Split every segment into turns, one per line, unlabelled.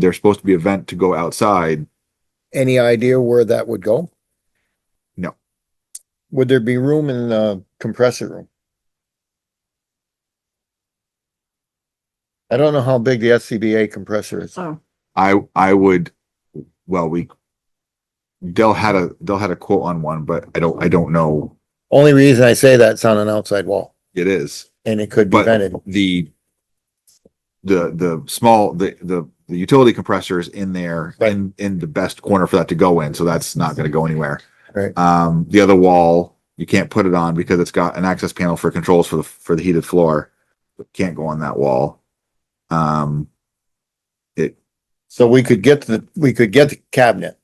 there's supposed to be a vent to go outside.
Any idea where that would go?
No.
Would there be room in the compressor room? I don't know how big the SCBA compressor is.
So,
I, I would, well, we, Dell had a, Dell had a quote on one, but I don't, I don't know.
Only reason I say that's on an outside wall
It is.
and it could be
But-
vented.
the the the small the the the utility compressor is in there
Right.
in in the best corner for that to go in so that's not going to go anywhere
Right.
um the other wall you can't put it on because it's got an access panel for controls for the for the heated floor can't go on that wall um
So we could get the, we could get the cabinet.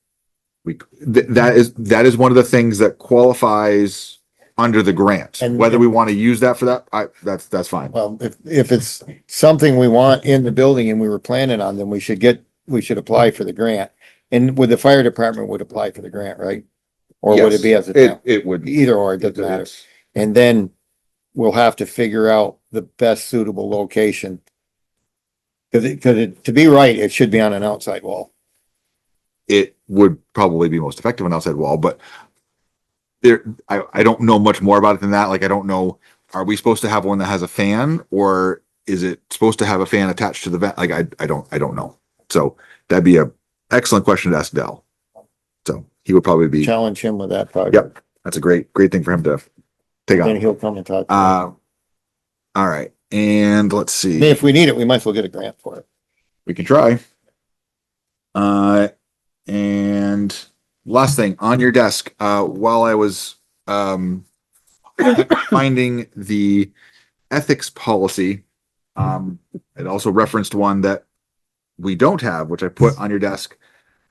we th- that is that is one of the things that qualifies under the grant
And-
whether we want to use that for that i that's that's fine
Well, if, if it's something we want in the building and we were planning on, then we should get, we should apply for the grant. And would the fire department would apply for the grant, right? Or would it be as a town?
it, it would
Either or, it doesn't matter. And then we'll have to figure out the best suitable location. Cause it, cause it, to be right, it should be on an outside wall.
it would probably be most effective on outside wall, but there, I, I don't know much more about it than that. Like, I don't know, are we supposed to have one that has a fan or is it supposed to have a fan attached to the vent? Like, I, I don't, I don't know. So that'd be a excellent question to ask Dell. So he would probably be,
Challenge him with that project.
Yep. that's a great, great thing for him to take
Then
on.
he'll come and talk. to us.
Uh, all right. And let's
I
see.
mean, if we need it, we might as well get a grant for it.
We can try. Uh, and last thing on your desk, uh, while I was, um, finding the ethics policy, um, it also referenced one that we don't have, which I put on your desk,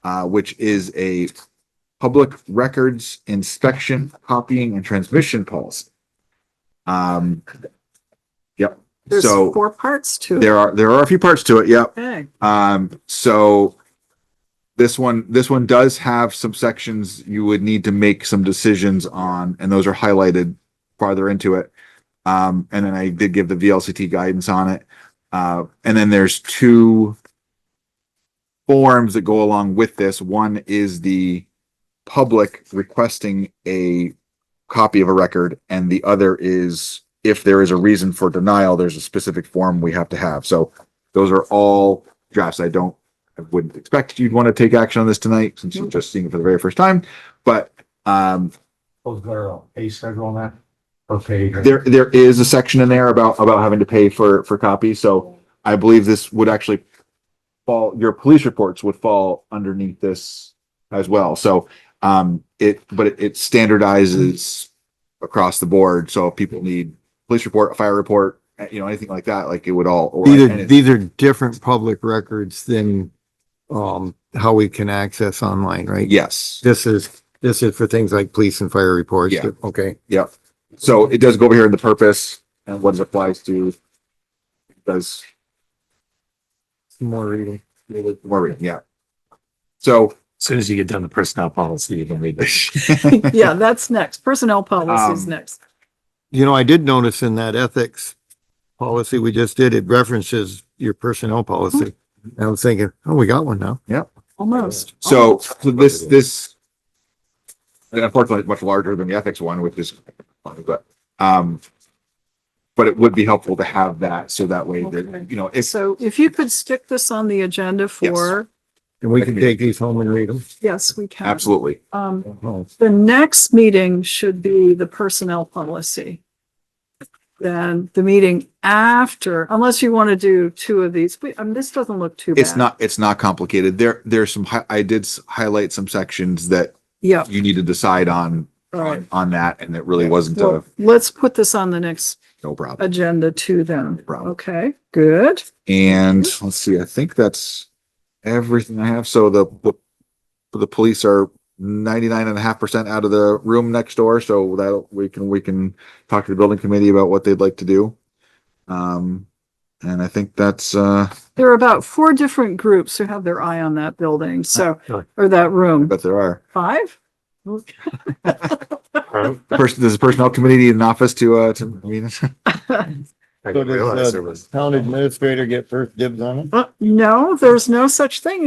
uh, which is a public records inspection, copying and transmission policy. Um, yep.
there's
So-
four parts to it.
There are, there are a few parts to it. Yep.
Okay.
Um, so this one, this one does have some sections you would need to make some decisions on, and those are highlighted farther into it. Um, and then I did give the VLCT guidance on it. Uh, and then there's two forms that go along with this. One is the public requesting a copy of a record, and the other is if there is a reason for denial, there's a specific form we have to have. So those are all drafts. I don't, I wouldn't expect you'd want to take action on this tonight since you're just seeing it for the very first time. But, um,
Was there a pay schedule on that? Per page? or-
there, there is a section in there about, about having to pay for, for copies. So I believe this would actually fall, your police reports would fall underneath this as well. So, um, it, but it- it standardizes across the board. So if people need police report, a fire report, eh, you know, anything like that, like it would all. or-
These
and
are,
it-
these are different public records than, um, how we can access online, right?
Yes.
This is, this is for things like police and fire reports.
Yeah.
Okay.
Yep. So it does go over here in the purpose and what it applies to. Does
Some more reading.
more reading, yeah. So,
Soon as you get done the personnel policy, you can read this.
Yeah, that's next. Personnel policy is
Um,
next.
You know, I did notice in that ethics policy we just did, it references your personnel policy.
Mm-hmm.
I was thinking, oh, we got one now.
Almost.
so so this, this. and Unfortunately, it's much larger than the ethics one, which is, but, um. But it would be helpful to have that, so that way that,
Okay.
you know, if,
So if you could stick this on the agenda for,
And we can take these home and read them.
yes, we can.
absolutely,
Um,
Oh,
the next meeting should be the personnel policy. Then the meeting after, unless you want to do two of these, we, um, this doesn't look too bad.
it's not, it's not complicated. There, there's some, hi- I did s- highlight some sections that
Yeah,
you need to decide on,
all right.
on on that, and it really wasn't a,
Well, let's put this on the next
no problem.
agenda too then.
Problem.
Okay, good.
And let's see, I think that's everything I have. So the, the, the police are ninety-nine and a half percent out of the room next door, so that'll, we can, we can talk to the building committee about what they'd like to do. Um, and I think that's, uh,
There are about four different groups who have their eye on that building, so,
really?
or that room.
but there are.
Five?
Person, there's a personnel committee in office to, uh, to, I mean,
I
So
didn't realize
does
there was.
the town administrator get first dibs on it?
Uh, no, there's no such thing